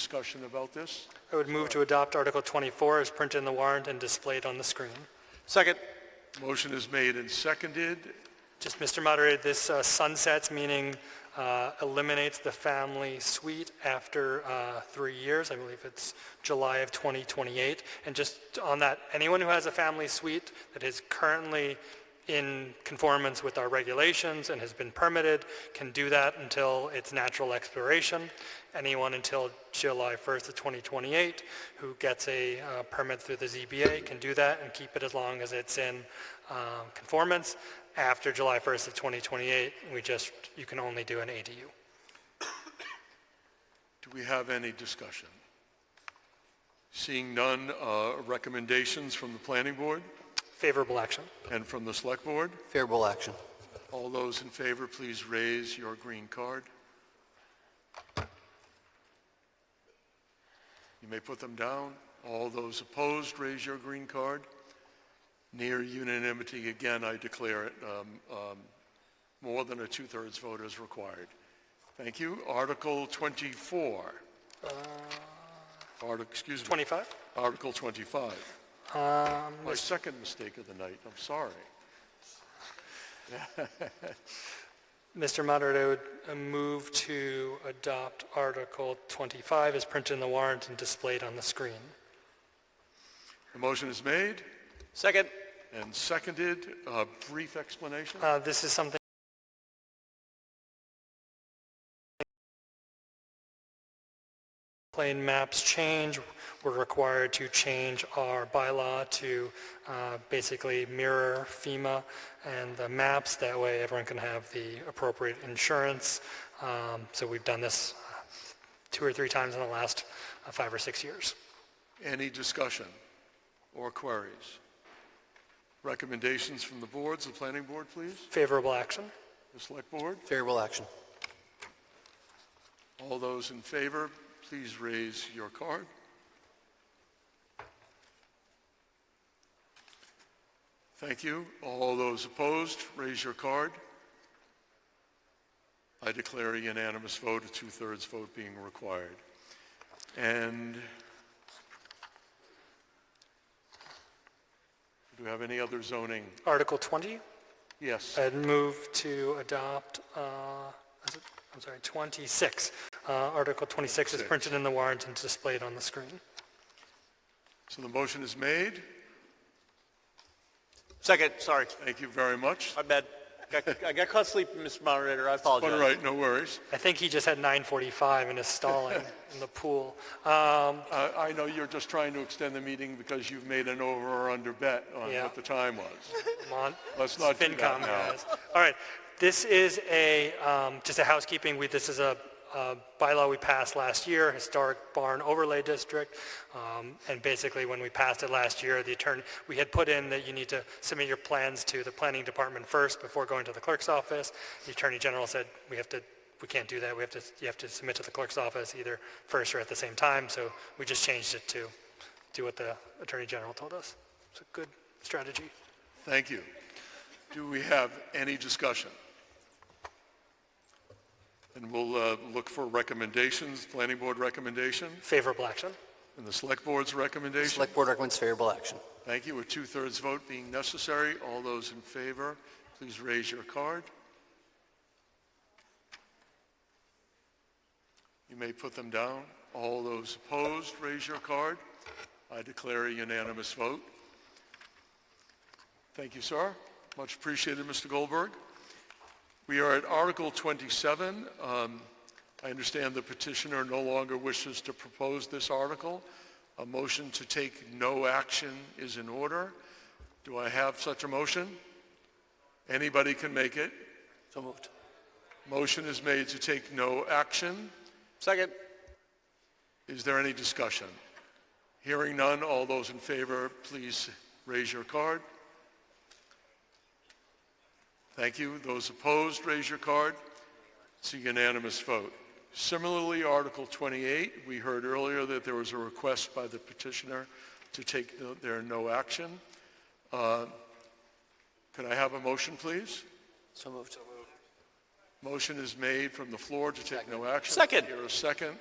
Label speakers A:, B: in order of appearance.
A: discussion about this?
B: I would move to adopt Article 24 as printed in the warrant and displayed on the screen.
C: Second.
A: Motion is made and seconded.
B: Just, Mr. Moderator, this uh, sunsets, meaning uh, eliminates the family suite after uh, three years. I believe it's July of 2028. And just on that, anyone who has a family suite that is currently in conformance with our regulations and has been permitted can do that until its natural expiration. Anyone until July 1st of 2028 who gets a uh, permit through the ZBA can do that and keep it as long as it's in um, conformance. After July 1st of 2028, we just, you can only do an ADU.
A: Do we have any discussion? Seeing none, uh, recommendations from the planning board
B: Favorable action.
A: and from the select board?
C: Favorable action.
A: All those in favor, please raise your green card. You may put them down. All those opposed, raise your green card. Near unanimity, again, I declare it, um, um, more than a two-thirds vote is required. Thank you. Article 24. Article, excuse me,
B: 25?
A: Article 25.
B: Um,
A: My second mistake of the night, I'm sorry.
B: Mr. Moderator, I would uh, move to adopt Article 25 as printed in the warrant and displayed on the screen.
A: The motion is made.
C: Second.
A: And seconded, a brief explanation?
B: Uh, This is something plane maps change, we're required to change our bylaw to uh, basically mirror FEMA and the maps. That way, everyone can have the appropriate insurance. Um, So we've done this uh, two or three times in the last uh, five or six years.
A: Any discussion or queries? Recommendations from the boards, the planning board, please,
B: Favorable action.
A: the select board?
C: Favorable action.
A: All those in favor, please raise your card. Thank you. All those opposed, raise your card. I declare a unanimous vote, a two-thirds vote being required. And do we have any other zoning?
B: Article 20,
A: Yes.
B: I'd move to adopt, uh, is it- I'm sorry, 26. Uh, Article 26 is
A: 26.
B: printed in the warrant and displayed on the screen.
A: So the motion is made.
C: Second, sorry.
A: Thank you very much.
C: My bad. Got- I got caught sleeping, Mr. Moderator. I apologize.
A: All right, no worries.
B: I think he just had 945 and is stalling in the pool. Um,
A: Uh, I know you're just trying to extend the meeting because you've made an over or under bet on
B: Yeah.
A: what the time was.
B: Come on.
A: Let's not do that
B: FinCom
A: now.
B: guys. All right, this is a, um, just a housekeeping, we, this is a a bylaw we passed last year, historic barn overlay district. Um, And basically, when we passed it last year, the attorney, we had put in that you need to submit your plans to the planning department first before going to the clerk's office. The attorney general said, we have to, we can't do that, we have to, you have to submit to the clerk's office either first or at the same time, so we just changed it to do what the attorney general told us. It's a good strategy.
A: Thank you. Do we have any discussion? And we'll uh, look for recommendations, planning board recommendation
B: Favorable action.
A: and the select board's recommendation.
C: Board recommends favorable action.
A: Thank you. A two-thirds vote being necessary. All those in favor, please raise your card. You may put them down. All those opposed, raise your card. I declare a unanimous vote. Thank you, sir. Much appreciated, Mr. Goldberg. We are at Article 27. Um, I understand the petitioner no longer wishes to propose this article. A motion to take no action is in order. Do I have such a motion? Anybody can make it.
C: So moved.
A: Motion is made to take no action.
C: Second.
A: Is there any discussion? Hearing none, all those in favor, please raise your card. Thank you. Those opposed, raise your card. It's a unanimous vote. Similarly, Article 28, we heard earlier that there was a request by the petitioner to take no- their no action. Uh, Could I have a motion, please?
C: So moved.
A: Motion is made from the floor to take no action.
C: Second.
A: Here a second.